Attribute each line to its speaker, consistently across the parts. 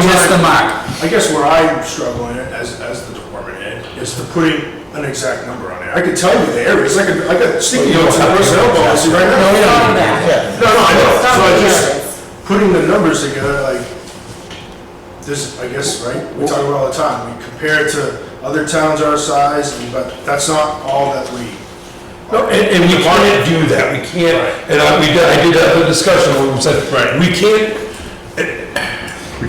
Speaker 1: the mark.
Speaker 2: I guess where I'm struggling as, as the department head is to putting an exact number on it. I could tell you the areas, I could, I got sticky notes in personnel policy right now.
Speaker 1: No,
Speaker 2: No,
Speaker 1: no, no.
Speaker 2: no, I know, so I
Speaker 3: It's
Speaker 2: just, putting the numbers together, like, this, I guess, right? We talk about it all the time, we compare it to other towns our size, and- but that's not all that we.
Speaker 4: No, and, and we can't do that, we can't, and I, we, did- I did have a discussion where we said,
Speaker 2: Right.
Speaker 4: we can't,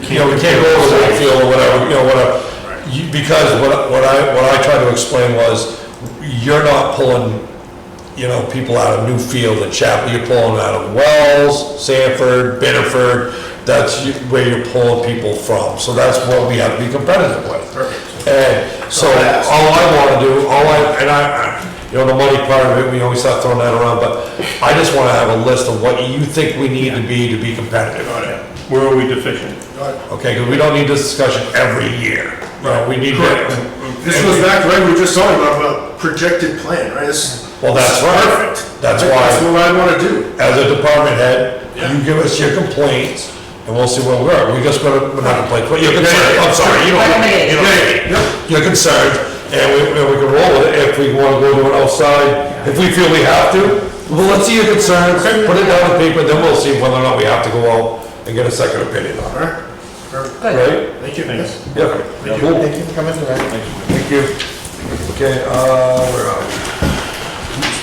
Speaker 4: you know, we can't go over the field or whatever, you know, whatever. You- Because what, what I, what I tried to explain was, you're not pulling, you know, people out of Newfield and Chapel, you're pulling out of Wells, Sanford, Biddeford, that's you- where you're pulling people from, so that's what we have to be competitive with.
Speaker 2: Perfect.
Speaker 4: And so all I wanna do, all I, and I, I- you know, the money part of it, we always start throwing that around, but I just wanna have a list of what you think we need to be to be competitive.
Speaker 2: Got it.
Speaker 5: Where are we deficient?
Speaker 2: Got it.
Speaker 4: Okay, because we don't need this discussion every year. You know, we need
Speaker 2: Correct.
Speaker 4: to.
Speaker 2: This goes back to what we were just talking about, about projected plan, right? This-
Speaker 4: Well, that's
Speaker 2: this is
Speaker 4: right.
Speaker 2: Perfect.
Speaker 4: That's
Speaker 2: Like,
Speaker 4: why-
Speaker 2: That's what I wanna do.
Speaker 4: As a department head,
Speaker 2: Yeah.
Speaker 4: you give us your complaints and we'll see where we are. We just gonna, we're not complaining, but you're concerned, I'm sorry, you don't. you don't- You're concerned and we, and we can roll with it if we wanna go to an outside, if we feel we have to. Well, let's see your concerns, put it down on paper, then we'll see whether or not we have to go out and get a second opinion on
Speaker 2: All right. Perfect.
Speaker 4: it, right?
Speaker 2: Thank you.
Speaker 5: Thanks.
Speaker 4: Yeah. Cool.
Speaker 1: Thank you for coming through.
Speaker 4: Thank you. Okay, uh, where are we?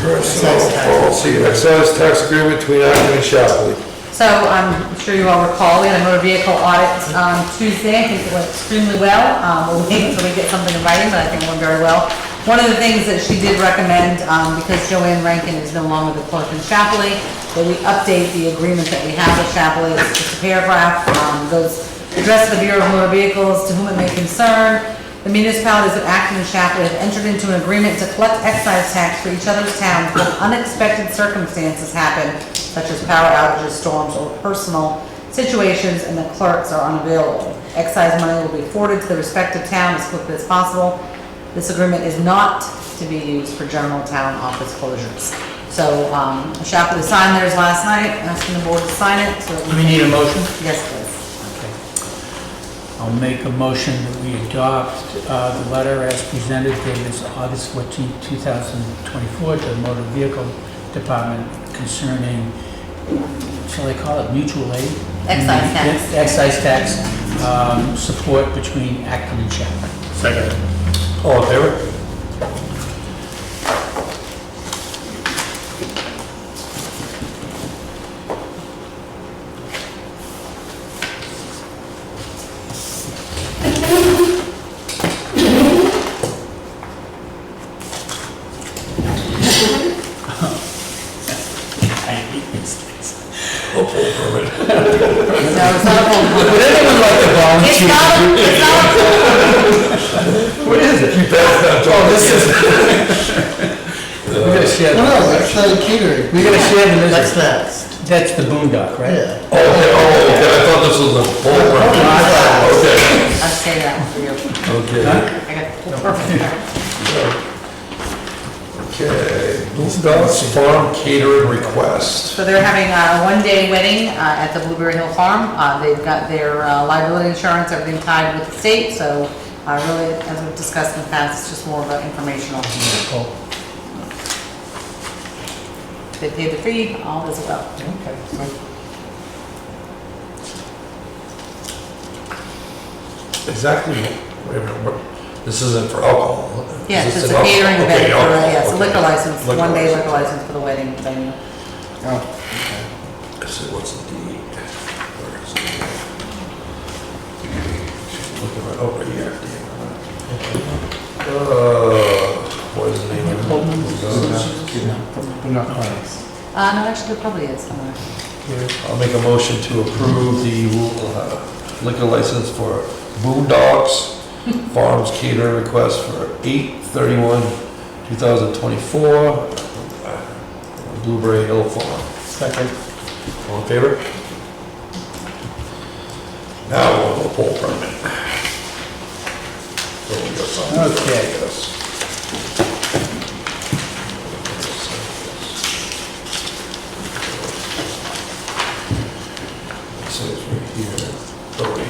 Speaker 4: Personnel policy, oh, excise tax agreement between Acton and Shapley.
Speaker 3: So um, I'm sure you all recall, we had a motor vehicle audit on Tuesday. I think it went extremely well. Um, We'll wait until we get something in writing, but I think it went very well. One of the things that she did recommend, um, because Joanne Rankin is no longer the clerk in Chapley, that we update the agreement that we have with Chapley. It's just a paragraph, um, goes, address the Bureau of Motor Vehicles to whom it may concern. The municipalities of Acton and Shapley have entered into an agreement to collect excise tax for each other's towns when unexpected circumstances happen, such as power outages, storms, or personal situations, and the clerks are unavailable. Excise money will be forwarded to the respective town as quickly as possible. This agreement is not to be used for general town office closures. So, um, Shapley signed theirs last night, asking the board to sign it, so.
Speaker 1: We need a motion?
Speaker 3: Yes, please.
Speaker 6: I'll make a motion that we adopt uh, the letter as presented dated August 14, 2024, to the Motor Vehicle Department concerning, shall I call it mutual aid?
Speaker 3: Excise tax.
Speaker 6: Excise tax um, support between Acton and Chapel.
Speaker 5: Second.
Speaker 4: All in favor?
Speaker 6: I hate these things.
Speaker 3: No, it's not a full-
Speaker 4: Would anyone like to
Speaker 3: It's not, a- it's not a
Speaker 4: What is it? You better not talk. Oh, this is.
Speaker 6: We're gonna share,
Speaker 1: No, no, that's the catering.
Speaker 6: we're gonna share the
Speaker 1: That's
Speaker 6: misery.
Speaker 1: next,
Speaker 6: That's the boondock, right?
Speaker 1: yeah.
Speaker 4: Oh, okay, oh, okay, I thought this was a bull.
Speaker 3: I'll say that one for you.
Speaker 4: Okay. Okay.
Speaker 3: I got perfect.
Speaker 4: Okay, Bluegrass Farm catering request.
Speaker 3: So they're having a one-day wedding uh, at the Blueberry Hill Farm. Uh, They've got their uh, liability insurance, everything tied with the state, so uh, really, as we've discussed in the past, it's just more of an informational. They paid the fee, all is well.
Speaker 4: Exactly, wait a minute, what- this isn't for alcohol. is
Speaker 3: Yes,
Speaker 4: this
Speaker 3: it's
Speaker 4: an
Speaker 3: a
Speaker 4: alcohol?
Speaker 3: catering
Speaker 4: Okay,
Speaker 3: event, for
Speaker 4: alcohol,
Speaker 3: yeah, it's a
Speaker 4: okay.
Speaker 3: liquor license,
Speaker 4: Liquor
Speaker 3: one-day
Speaker 4: license.
Speaker 3: liquor license for the wedding venue.
Speaker 4: I said, what's the deed? Where is it? Look at it over oh, here. Uh, what is the name of it?
Speaker 3: Uh, No, actually, there probably is somewhere.
Speaker 4: I'll make a motion to approve the uh, liquor license for Boondocks Farms catering request for 8/31/2024, uh, Blueberry Hill Farm.
Speaker 6: Second.
Speaker 4: All in favor? Now we'll go pull permit. So we got something to do, I
Speaker 6: Okay.
Speaker 4: guess.